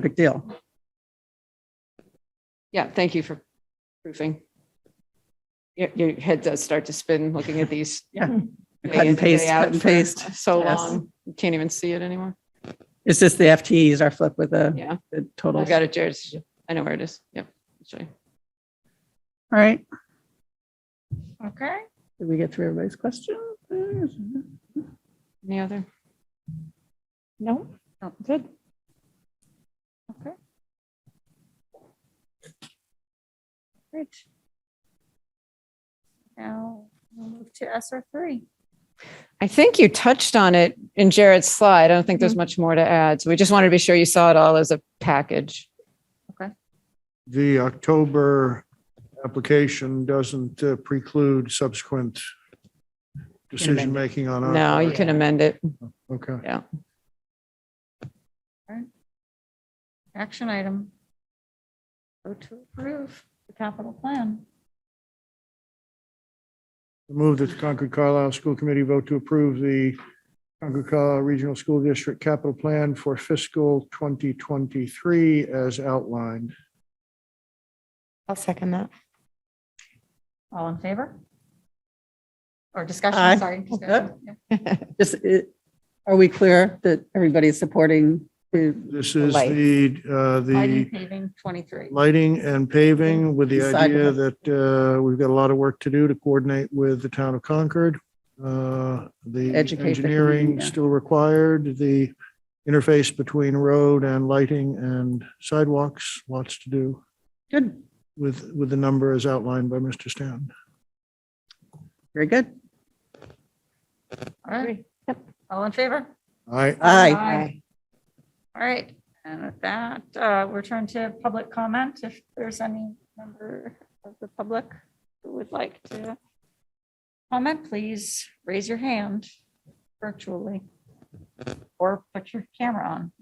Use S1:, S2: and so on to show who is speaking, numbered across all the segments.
S1: big deal.
S2: Yeah, thank you for proofing. Your, your head does start to spin looking at these.
S1: Yeah.
S2: day
S1: Hmm. Cut
S2: in,
S1: and paste,
S2: day
S1: cut
S2: out
S1: and
S2: for
S1: paste.
S2: So
S1: Yes.
S2: long, you can't even see it anymore.
S1: It's just the FTEs are flipped with the
S2: Yeah,
S1: the
S2: I
S1: totals.
S2: got it, Jared. I know where it is. Yep. Sorry.
S1: All right.
S3: Okay.
S1: Did we get through everybody's question?
S2: Any other?
S3: No, good. Okay. Great. Now we'll move to SR three.
S2: I think you touched on it in Jared's slide. I don't think there's much more to add. So we just wanted to be sure you saw it all as a package.
S4: the October application doesn't uh, preclude subsequent decision-making
S1: Uh,
S4: on our.
S2: No, you can amend it.
S4: Okay.
S3: Action item. Vote to approve the capital plan.
S4: Move that the Concord Carlisle School Committee vote to approve the Concord Carlisle Regional School District Capital Plan for fiscal 2023 as outlined.
S5: I'll second that.
S3: All in favor? Or discussion,
S1: Aye.
S3: sorry. discussion. Yeah.
S1: Just, it- are we clear that everybody's supporting the
S4: This is
S1: Lights.
S4: the, uh, the
S3: Lighting paving twenty-three.
S4: lighting and
S1: Mm-hmm.
S4: paving with the idea
S1: Sidewalk.
S4: that uh, we've got a lot of work to do to coordinate with the town of Concord. Uh, The
S1: Educate the
S4: engineering
S1: community, yeah.
S4: still required, the interface between road and lighting and sidewalks, lots to do
S1: Good,
S4: with, with the number as outlined by Mr. Stanton.
S1: very good.
S3: All right. All in favor?
S4: I,
S1: Aye.
S3: Aye. All right, and with that, uh, we'll turn to public comment. If there's any member of the public who would like to comment, please raise your hand virtually or put your camera on.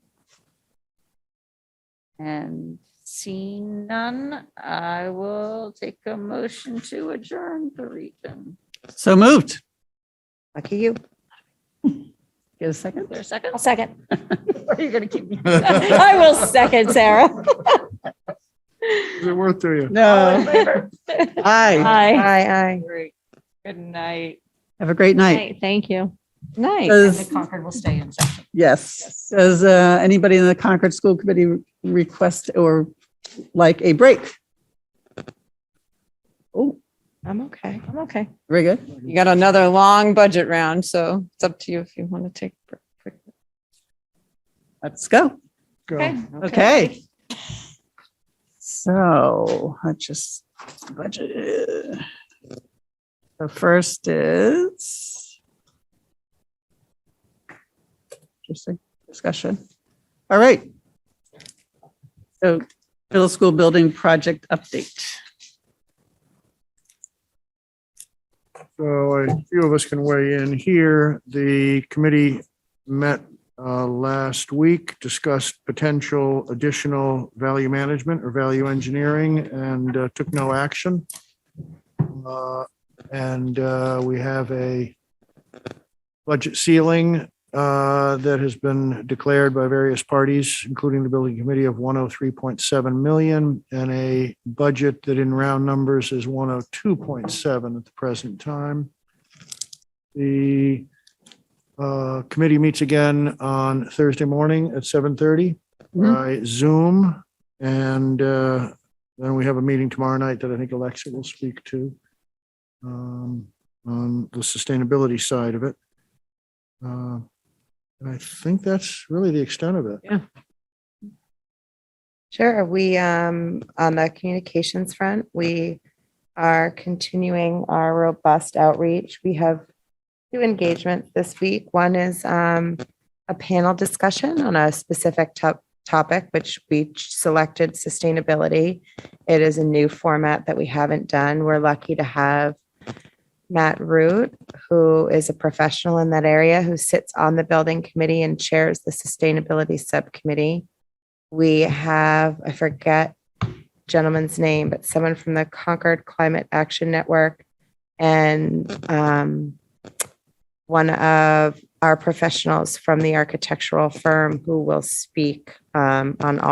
S3: And seeing none, I will take a motion to adjourn the region.
S1: So moved.
S5: Lucky you.
S1: Get a
S3: Is
S1: second?
S3: there a second?
S5: I'll second.
S3: Or Are you going to keep me?
S5: I will second, Sarah.
S4: is it worth to you?
S3: All in
S1: No,
S3: favor?
S1: aye.
S3: Aye.
S5: Aye,
S3: Great. Good night.
S1: Have a great night.
S5: aye. Thank you.
S2: Nice.
S3: And the
S1: Does,
S3: Concord will stay in session.
S1: yes, does uh, anybody in the Concord School Committee request or like a break? Oh,
S5: I'm okay. I'm okay.
S1: very good.
S2: You got another long budget round, so it's up to you if you want to take. a break.
S1: Let's go.
S4: Go.
S3: Okay.
S1: Okay. So I just budget. The first is just a discussion. All right. So middle school building project update.
S4: So a few of us can weigh in here. The committee met uh, last week, discussed potential additional value management or value engineering and uh, took no action. Uh, And uh, we have a budget ceiling uh, that has been declared by various parties, including the building committee of 103.7 million and a budget that in round numbers is 102.7 at the present time. The uh, committee meets again on Thursday morning at 7:30
S1: Mhm.
S4: by Zoom. And uh, then we have a meeting tomorrow night that I think Alexa will speak to um, on the sustainability side of it. Uh, And I think that's really the extent of it.
S5: Sure. We, um, on the communications front, we are continuing our robust outreach. We have two engagements this week. One is, um, a panel discussion on a specific top, topic, which we selected sustainability. It is a new format that we haven't done. We're lucky to have Matt Root, who is a professional in that area, who sits on the building committee and chairs the sustainability subcommittee we have, I forget gentleman's name, but someone from the Concord Climate Action Network and um, one of our professionals from the architectural firm who will speak um, on all.